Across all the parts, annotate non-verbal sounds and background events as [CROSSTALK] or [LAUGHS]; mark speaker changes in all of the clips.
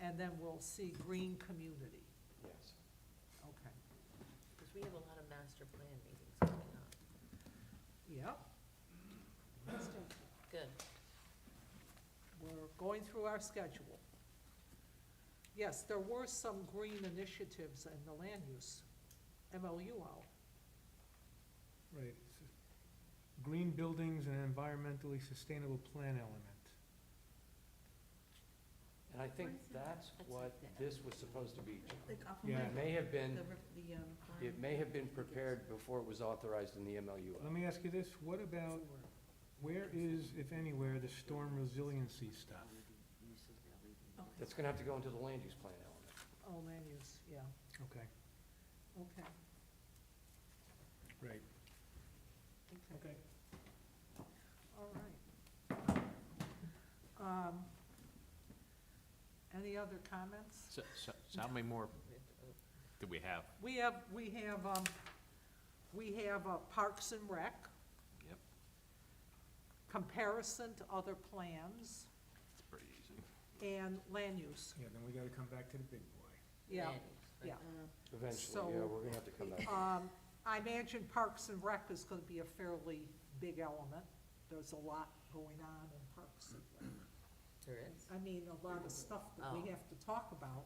Speaker 1: and then we'll see green community,
Speaker 2: Yes.
Speaker 1: okay,
Speaker 3: Because we have a lot of master plan meetings coming up.
Speaker 1: yep.
Speaker 3: Good.
Speaker 1: We're going through our schedule. Yes, there were some green initiatives in the land use, MLU out.
Speaker 4: Right. s- Green buildings and an environmentally sustainable plan element.
Speaker 2: And I think
Speaker 5: Where is it?
Speaker 2: that's
Speaker 3: That's
Speaker 2: what
Speaker 3: like the-
Speaker 2: this was supposed to be.
Speaker 4: Yeah.
Speaker 5: The
Speaker 2: It
Speaker 5: complement,
Speaker 2: may have been,
Speaker 5: the, ref- the, um,
Speaker 2: it may have been prepared before it was authorized in the MLU.
Speaker 4: Let me ask you this, what
Speaker 1: Oh,
Speaker 4: about, where is, if anywhere, the storm resiliency stuff?
Speaker 3: Oh,
Speaker 5: okay.
Speaker 2: That's gonna have to go into the land use plan element.
Speaker 1: Oh, land use, yeah,
Speaker 4: Okay,
Speaker 1: okay,
Speaker 4: right.
Speaker 1: okay. All right. Um, Any other comments?
Speaker 6: So, so, so how many more do we have?
Speaker 1: We have, we have, um, we have uh, Parks and Rec.
Speaker 6: Yep.
Speaker 1: Comparison to other plans
Speaker 6: It's pretty easy.
Speaker 1: and land use,
Speaker 4: Yeah, then we gotta come back to the big boy.
Speaker 1: yeah.
Speaker 3: Landings, right.
Speaker 1: yeah. So-
Speaker 2: Eventually, yeah, we're gonna have to come back.
Speaker 1: Um, I imagine Parks and Rec is gonna be a fairly big element. There's a lot going on in Parks and Rec.
Speaker 3: There is.
Speaker 1: I mean, a lot of stuff that we
Speaker 3: Oh.
Speaker 1: have to talk about.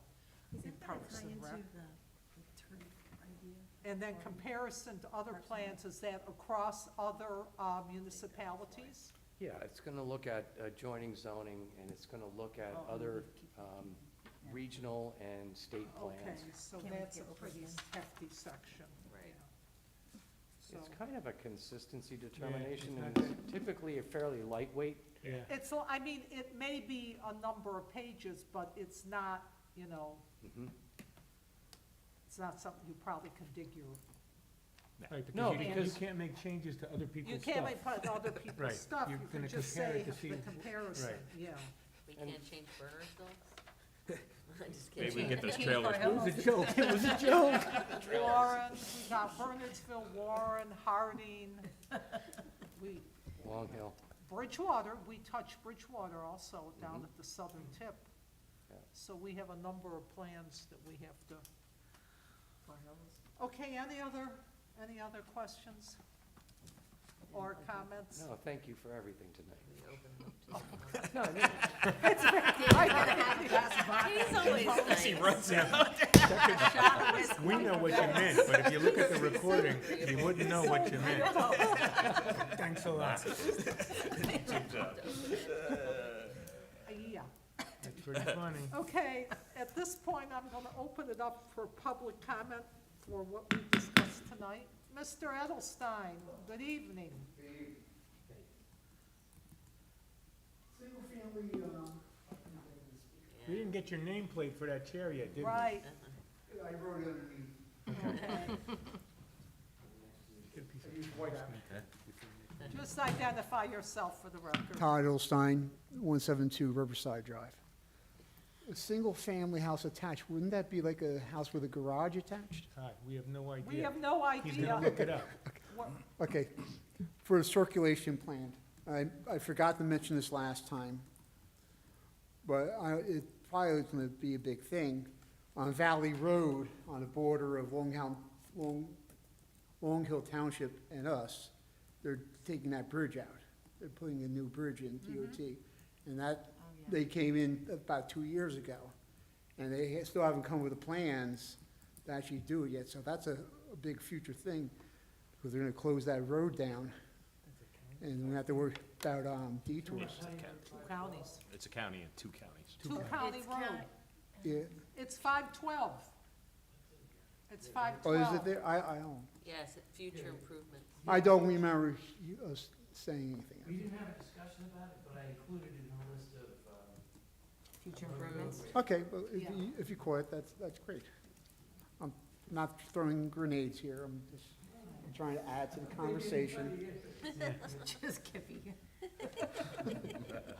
Speaker 5: Isn't that
Speaker 1: Parks
Speaker 5: tie
Speaker 1: and
Speaker 5: into the,
Speaker 1: Rec.
Speaker 5: the turf idea?
Speaker 1: And then comparison to other plans, is that across other uh, municipalities?
Speaker 2: Yeah, it's gonna look at adjoining zoning, and it's gonna look
Speaker 1: Oh.
Speaker 2: at other
Speaker 5: Oh,
Speaker 2: um, regional and state
Speaker 1: Okay,
Speaker 2: plans.
Speaker 1: so
Speaker 5: Can we
Speaker 1: that's a
Speaker 5: get over
Speaker 1: pretty
Speaker 5: this?
Speaker 1: hefty section.
Speaker 3: Right.
Speaker 1: yeah.
Speaker 2: It's
Speaker 1: So,
Speaker 2: kind of a consistency determination,
Speaker 4: it's
Speaker 2: and
Speaker 4: not
Speaker 2: it's typically a fairly lightweight.
Speaker 4: Yeah.
Speaker 1: it's, l- I mean, it may be a number of pages, but it's not, you know,
Speaker 2: Mhm.
Speaker 1: it's not something you probably can dig your,
Speaker 4: Right,
Speaker 2: No,
Speaker 4: because you can't, you
Speaker 2: because-
Speaker 4: can't make changes to other people's
Speaker 1: you
Speaker 4: stuff.
Speaker 1: can't make fun of
Speaker 4: [LAUGHS]
Speaker 1: other people's
Speaker 4: Right,
Speaker 1: stuff.
Speaker 4: you're
Speaker 1: You can
Speaker 4: gonna
Speaker 1: just
Speaker 4: compare
Speaker 1: say
Speaker 4: it to see-
Speaker 1: the comparison,
Speaker 4: right.
Speaker 1: yeah.
Speaker 3: We
Speaker 2: And-
Speaker 3: can't change burner
Speaker 2: [LAUGHS]
Speaker 3: bills? I'm [LAUGHS] just
Speaker 6: Maybe
Speaker 3: kidding.
Speaker 6: we get those
Speaker 3: Can't
Speaker 6: trailers
Speaker 3: borrow.
Speaker 4: It was a joke, it was a joke.
Speaker 1: Warren, we got Bernardsville, Warren, Harding.
Speaker 2: [LAUGHS]
Speaker 1: We,
Speaker 2: Long Hill.
Speaker 1: Bridgewater, we touch Bridgewater also
Speaker 4: Mm-hmm.
Speaker 1: down at the southern tip.
Speaker 2: Yeah.
Speaker 1: So we have a number of plans that we have to. Okay, any other, any other questions? Or comments?
Speaker 2: No, thank you for everything tonight.
Speaker 3: We open them up
Speaker 1: [LAUGHS]
Speaker 3: to
Speaker 2: No, I mean,
Speaker 3: someone. He's always nice.
Speaker 6: runs out.
Speaker 4: We know what you meant, but if you look at the recording, you wouldn't know [LAUGHS] what you meant. Thanks a lot.
Speaker 1: Yeah,
Speaker 4: That's pretty funny.
Speaker 1: okay, at this point, I'm gonna open it up for public comment for what we discussed tonight. Mr. Edelstein, good evening.
Speaker 7: Single-family, um,
Speaker 4: We didn't get your nameplate for that chair yet, did we?
Speaker 1: Right,
Speaker 7: I wrote it underneath.
Speaker 1: okay.
Speaker 4: Get a piece of
Speaker 7: I used white
Speaker 4: parchment.
Speaker 1: Just identify yourself for the record.
Speaker 7: Todd Edelstein, 172 Riverside Drive. A single-family house attached, wouldn't that be like a house with a garage attached?
Speaker 4: Todd, we have no idea.
Speaker 1: We have no
Speaker 4: He's gonna
Speaker 1: idea
Speaker 4: look it up.
Speaker 1: what,
Speaker 7: Okay, for the circulation plan, I, I forgot to mention this last time, but I, it probably is gonna be a big thing. On Valley Road, on the border of Long Hill, Long, Long Hill Township and us, they're taking that bridge out. They're putting a new bridge in DOT, and that, they came in about two years ago. And they ha- still haven't come with the plans to actually do it yet, so that's a, a big future thing because they're gonna close that road down, and we're gonna have to worry about, um, detours.
Speaker 1: two counties,
Speaker 6: It's a county and two counties.
Speaker 1: two county
Speaker 5: It's
Speaker 1: road.
Speaker 5: county.
Speaker 7: Yeah,
Speaker 1: It's five twelve. It's five
Speaker 7: oh,
Speaker 1: twelve.
Speaker 7: is it there? I, I don't,
Speaker 3: Yes, future improvements.
Speaker 7: I don't remember you, us saying
Speaker 8: We
Speaker 7: anything.
Speaker 8: didn't have a discussion about it, but I included it in the list of, um,
Speaker 3: Future improvements.
Speaker 7: Okay, well, if
Speaker 1: Yeah.
Speaker 7: you, if you caught it, that's, that's great. I'm not throwing grenades here, I'm just trying to add to the conversation.
Speaker 5: [LAUGHS] Just kidding.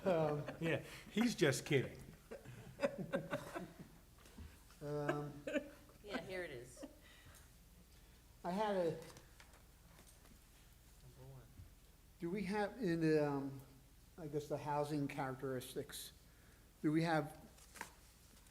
Speaker 7: Um,
Speaker 4: Yeah, he's just kidding.
Speaker 7: um,
Speaker 3: Yeah, here it is.
Speaker 7: I had a,
Speaker 3: Number one.
Speaker 7: Do we have in, um, I guess the housing characteristics, do we have